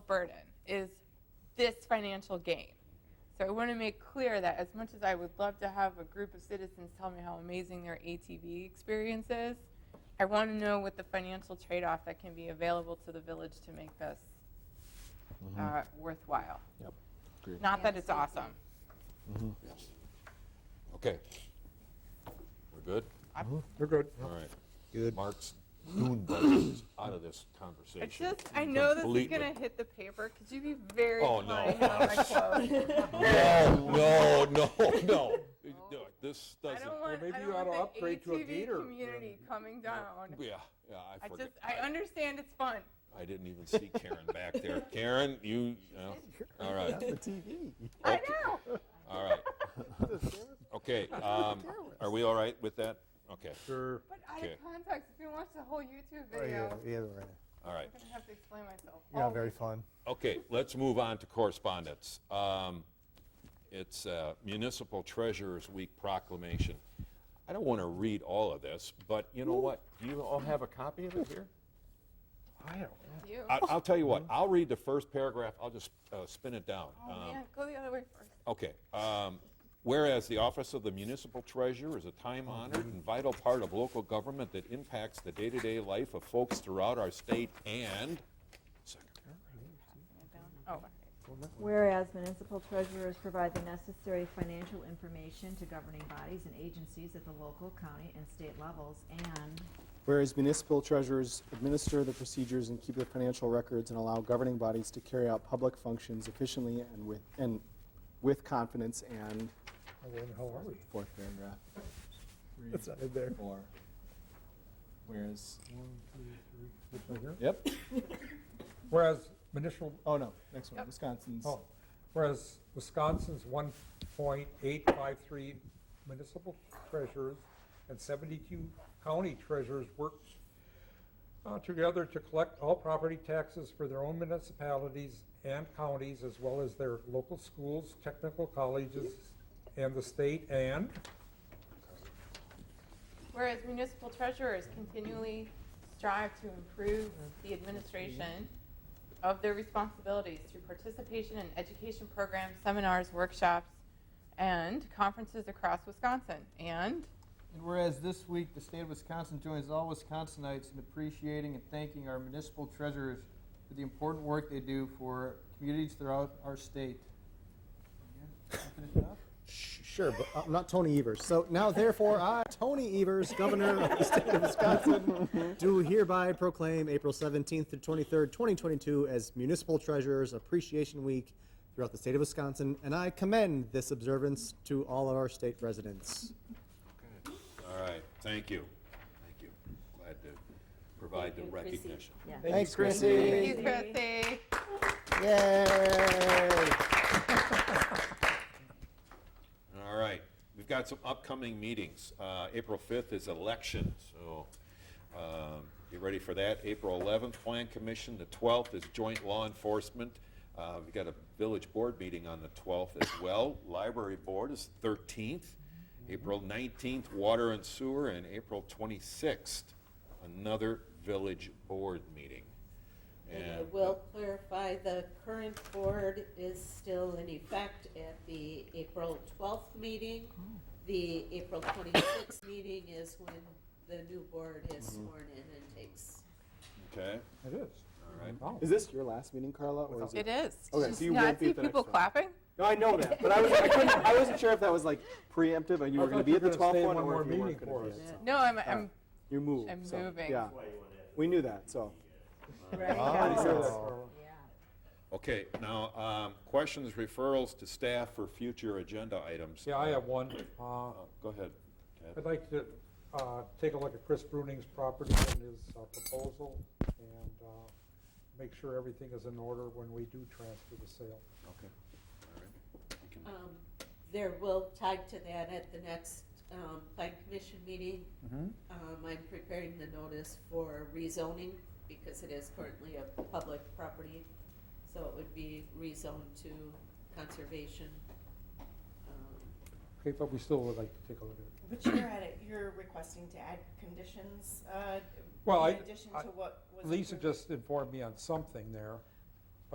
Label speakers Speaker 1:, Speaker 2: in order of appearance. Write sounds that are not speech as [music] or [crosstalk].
Speaker 1: burden is this financial gain. So I want to make clear that as much as I would love to have a group of citizens tell me how amazing their ATV experience is, I want to know what the financial trade-off that can be available to the village to make this
Speaker 2: Mm-hmm.
Speaker 1: uh, worthwhile.
Speaker 3: Yep.
Speaker 1: Not that it's awesome.
Speaker 2: Yes. Okay. We're good?
Speaker 3: We're good.
Speaker 2: All right.
Speaker 3: Good.
Speaker 2: Mark's [coughs] dune budget is out of this conversation.
Speaker 1: It's just, I know this is
Speaker 2: completely.
Speaker 1: gonna hit the paper. Could you be very
Speaker 2: Oh,
Speaker 1: kind
Speaker 2: no.
Speaker 1: on
Speaker 2: [laughs]
Speaker 1: my quote?
Speaker 2: No, no, no, no. No, This
Speaker 1: I
Speaker 2: doesn't,
Speaker 1: don't want,
Speaker 3: maybe
Speaker 1: I
Speaker 3: you ought
Speaker 1: don't
Speaker 3: to
Speaker 1: want the
Speaker 3: upgrade to a
Speaker 1: ATV
Speaker 3: gator.
Speaker 1: community coming down.
Speaker 2: yeah, yeah, I
Speaker 1: I
Speaker 2: forget.
Speaker 1: just, I understand it's fun.
Speaker 2: I didn't even see Karen back there.
Speaker 1: [laughs]
Speaker 2: Karen, you, no. all right,
Speaker 3: TV.
Speaker 1: I know.
Speaker 2: all right. Okay, um, are we all right with that? Okay,
Speaker 3: Sure.
Speaker 1: But out
Speaker 2: Okay.
Speaker 1: of context, if you watch the whole YouTube
Speaker 4: Oh, Yeah,
Speaker 1: video,
Speaker 4: yeah, right.
Speaker 2: all right.
Speaker 1: I'm gonna have to explain myself.
Speaker 4: You're not
Speaker 1: Oh,
Speaker 4: very fun.
Speaker 2: Okay, let's move on to correspondence. Um, It's uh, Municipal Treasurers Week proclamation. I don't want to read all of this, but you know what? Do you all have a copy of it here?
Speaker 3: I don't.
Speaker 1: You.
Speaker 2: I- I'll tell you what, I'll read the first paragraph, I'll just uh, spin it down.
Speaker 1: Oh,
Speaker 2: Um,
Speaker 1: man, go the other way first.
Speaker 2: Okay. um, Whereas the office of the municipal treasurer is a time-honored and vital part of local government that impacts the day-to-day life of folks throughout our state and,
Speaker 1: Oh, okay.
Speaker 5: Whereas municipal treasurers provide the necessary financial information to governing bodies and agencies at the local, county, and state levels, and
Speaker 6: Whereas municipal treasurers administer the procedures and keep the financial records and allow governing bodies to carry out public functions efficiently and with, and with confidence and,
Speaker 4: Oh, wait, How are we?
Speaker 6: fourth paragraph.
Speaker 4: That's not in there.
Speaker 6: Four. Whereas,
Speaker 4: This one here?
Speaker 6: yep,
Speaker 7: Whereas municipal,
Speaker 6: oh no, next one, Wisconsin's.
Speaker 7: oh, whereas Wisconsin's one point eight five three municipal treasurers and seventy-two county treasurers work uh, together to collect all property taxes for their own municipalities and counties, as well as their local schools, technical colleges, and the state, and
Speaker 1: Whereas municipal treasurers continually strive to improve the administration of their responsibilities through participation in education programs, seminars, workshops, and conferences across Wisconsin. And
Speaker 8: And whereas this week, the state of Wisconsin joins all Wisconsinites in appreciating and thanking our municipal treasurers for the important work they do for communities throughout our state. Yeah, finish it up?
Speaker 6: Sure, but I'm not Tony Evers. So now therefore, I, Tony Evers, Governor of the State of [laughs] Wisconsin, do hereby proclaim April 17th through 23rd, 2022 as Municipal Treasurers Appreciation Week throughout the state of Wisconsin, and I commend this observance to all of our state residents.
Speaker 2: all right, thank you. Thank you. Glad to provide the recognition.
Speaker 5: yeah.
Speaker 6: Thanks, Chrissy.
Speaker 1: you, Chrissy.
Speaker 6: Yay!
Speaker 2: All right, we've got some upcoming meetings. Uh, April 5th is election, so um, be ready for that. April 11th, Plan Commission, the 12th is Joint Law Enforcement. Uh, We've got a Village Board meeting on the 12th as well. Library Board is 13th. April 19th, Water and Sewer, and April 26th, another Village Board meeting.
Speaker 9: And I
Speaker 2: And-
Speaker 9: will clarify, the current board is still in effect at the April 12th meeting. The April 26th meeting is when the new board is sworn in and takes
Speaker 2: uh, Okay,
Speaker 7: it is.
Speaker 2: all right.
Speaker 7: Wow.
Speaker 6: Is this your last meeting, Carla, or is
Speaker 1: It
Speaker 6: it?
Speaker 1: is.
Speaker 6: Okay,
Speaker 1: Just
Speaker 6: so you
Speaker 1: now I
Speaker 6: won't be
Speaker 1: see
Speaker 6: at the next
Speaker 1: people
Speaker 6: one.
Speaker 1: clapping.
Speaker 6: No, I know that, but I was, I couldn't, I wasn't sure if that was like preemptive and you
Speaker 7: I
Speaker 6: were gonna
Speaker 7: thought
Speaker 6: be
Speaker 7: you
Speaker 6: at the
Speaker 7: were gonna
Speaker 6: 12th
Speaker 7: stay
Speaker 6: one
Speaker 7: one
Speaker 6: or
Speaker 7: more
Speaker 6: if you weren't
Speaker 7: meeting
Speaker 6: gonna
Speaker 7: for
Speaker 6: be
Speaker 7: us.
Speaker 6: at some.
Speaker 1: No, I'm, I'm,
Speaker 6: You moved.
Speaker 1: I'm
Speaker 6: so,
Speaker 1: moving.
Speaker 6: Yeah. We knew that, so.
Speaker 2: Okay, now, um, questions, referrals to staff for future agenda items.
Speaker 7: Yeah, I have one. Uh,
Speaker 2: Oh, Go ahead. Ted.
Speaker 7: I'd like to uh, take a look at Chris Bruning's property and his uh, proposal and uh, make sure everything is in order when we do transfer the sale.
Speaker 2: Okay. All right. You can-
Speaker 9: Um, There will, tied to that, at the next um, Plan Commission meeting, um, I'm preparing the notice for rezoning because it is currently a public property. So it would be rezoned to conservation. um,
Speaker 7: Okay, but we still would like to take a look at it.
Speaker 10: But you're at it, you're requesting to add conditions, uh,
Speaker 7: Well, I-
Speaker 10: in addition
Speaker 7: I-
Speaker 10: to what was.
Speaker 7: Lisa
Speaker 10: approved.
Speaker 7: just informed me on something there.